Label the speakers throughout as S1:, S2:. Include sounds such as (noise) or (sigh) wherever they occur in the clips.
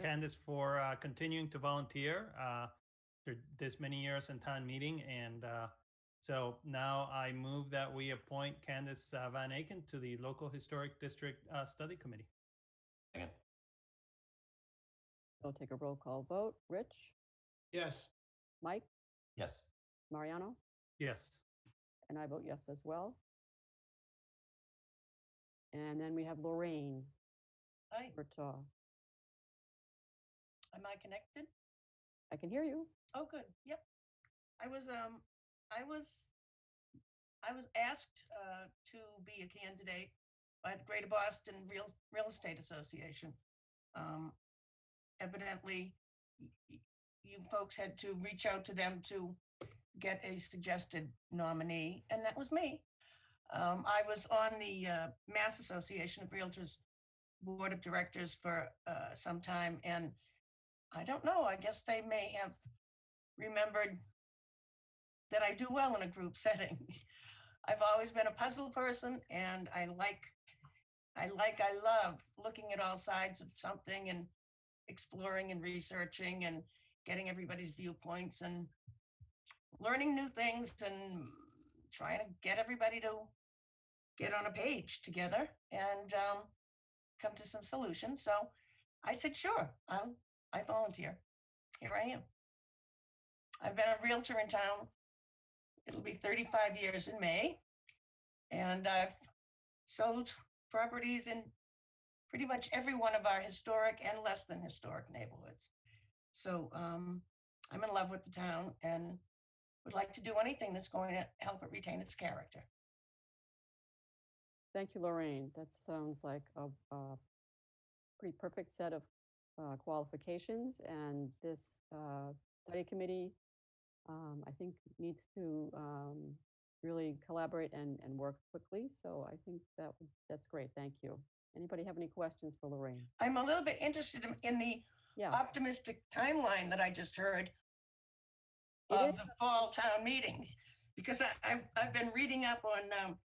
S1: Candace for uh, continuing to volunteer uh, for this many years in town meeting. And uh, so now I move that we appoint Candace uh, Van Aiken to the Local Historic District uh, Study Committee.
S2: Second.
S3: We'll take a roll call vote. Rich,
S4: Yes.
S3: Mike,
S2: Yes.
S3: Mariano,
S1: Yes.
S3: and I vote yes as well. And then we have Lorraine
S5: Hi,
S3: Bertaw.
S5: am I connected?
S3: I can hear you.
S5: Oh, good. Yep. I was, um, I was, I was asked, uh, to be a candidate by the Greater Boston Real, Real Estate Association. Um, evidently, y- y- you folks had to reach out to them to get a suggested nominee, and that was me. Um, I was on the, uh, Mass Association of Realtors Board of Directors for, uh, some time, and I don't know, I guess they may have remembered that I do well in a group (laughs) setting. I've always been a puzzle person and I like, I like, I love looking at all sides of something and exploring and researching and getting everybody's viewpoints and learning new things and trying to get everybody to get on a page together and um, come to some solutions. So I said, sure, I'll, I volunteer. Here I am. I've been a Realtor in town. It'll be 35 years in May. And I've sold properties in pretty much every one of our historic and less than historic neighborhoods. So um, I'm in love with the town and would like to do anything that's going to help it retain its character.
S3: Thank you, Lorraine. That sounds like a, a pretty perfect set of uh, qualifications. And this uh, study committee, um, I think, needs to um, really collaborate and, and work quickly. So I think that that's great. Thank you. Anybody have any questions for Lorraine?
S5: I'm a little bit interested in- in the
S3: Yeah.
S6: Uh,
S5: optimistic timeline that I just heard
S3: It
S5: of
S3: is.
S5: the fall town meeting, because I, I've, I've been reading up on, um,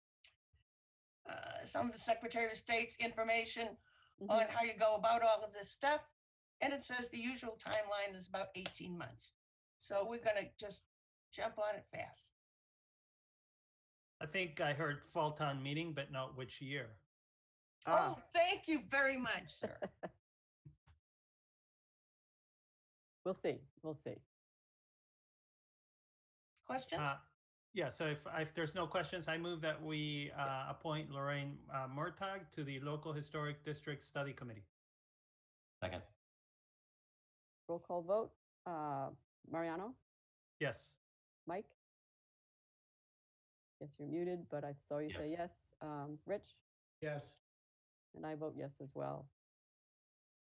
S5: uh, some of the Secretary of State's information
S3: Mhm.
S5: on how you go about all of this stuff. And it says the usual timeline is about eighteen months. So we're gonna just jump on it fast.
S1: I think I heard fall town meeting, but not which year.
S3: Ah.
S5: Oh, thank you very much,
S3: (laughs)
S5: sir.
S3: We'll see. We'll see.
S5: Questions?
S3: Ah,
S1: Uh, Yeah, so if, if there's no questions, I move that we uh, appoint Lorraine uh, Murtagh to the Local Historic District Study Committee.
S2: Second.
S3: Roll call vote. Uh, Mariano,
S1: Yes.
S3: Mike? Yes, you're muted, but I saw you say yes. Um, Rich?
S4: Yes.
S3: And I vote yes as well.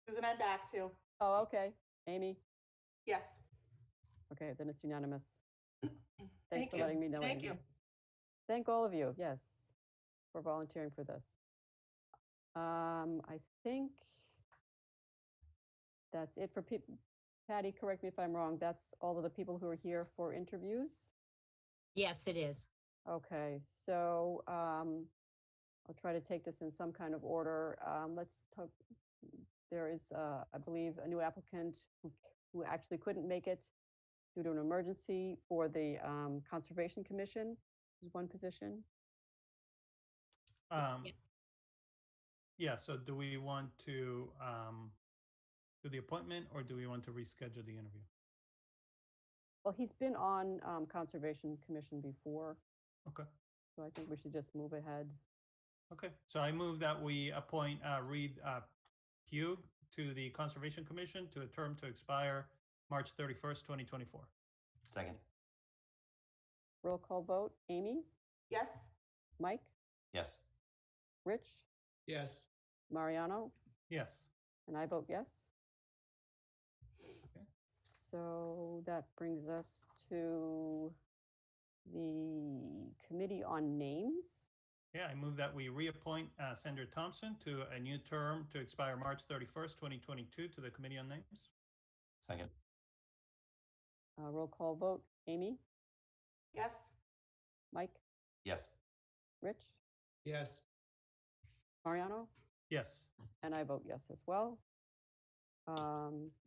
S6: Susan, I'm back too.
S3: Oh, okay. Amy?
S6: Yes.
S3: Okay, then it's unanimous. Thanks
S5: Thank
S3: for
S5: you.
S3: letting me know.
S5: Thank
S3: Amy.
S5: you.
S3: Thank all of you, yes, for volunteering for this. Um, I think that's it for people. Patty, correct me if I'm wrong. That's all of the people who are here for interviews?
S7: Yes, it is.
S3: Okay, so um, I'll try to take this in some kind of order. Um, let's talk, there is, uh, I believe, a new applicant who, who actually couldn't make it due to an emergency for the um, Conservation Commission, is one position.
S1: Um, yeah, so do we want to um, do the appointment or do we want to reschedule the interview?
S3: Well, he's been on um, Conservation Commission before.
S1: Okay.
S3: So I think we should just move ahead.
S1: Okay, so I move that we appoint uh, Reed uh, Pugh to the Conservation Commission to a term to expire March 31st, 2024.
S2: Second.
S3: Roll call vote. Amy,
S6: Yes.
S3: Mike,
S2: Yes.
S3: Rich,
S4: Yes.
S3: Mariano,
S1: Yes.
S3: And I vote yes. So that brings us to the Committee on Names.
S1: Yeah, I move that we reappoint uh, Sandra Thompson to a new term to expire March 31st, 2022 to the Committee on Names.
S2: Second.
S3: Uh, Roll call vote. Amy,
S6: Yes.
S3: Mike,
S2: Yes.
S3: Rich,
S4: Yes.
S3: Mariano,
S1: Yes.
S3: and I vote yes as well. um,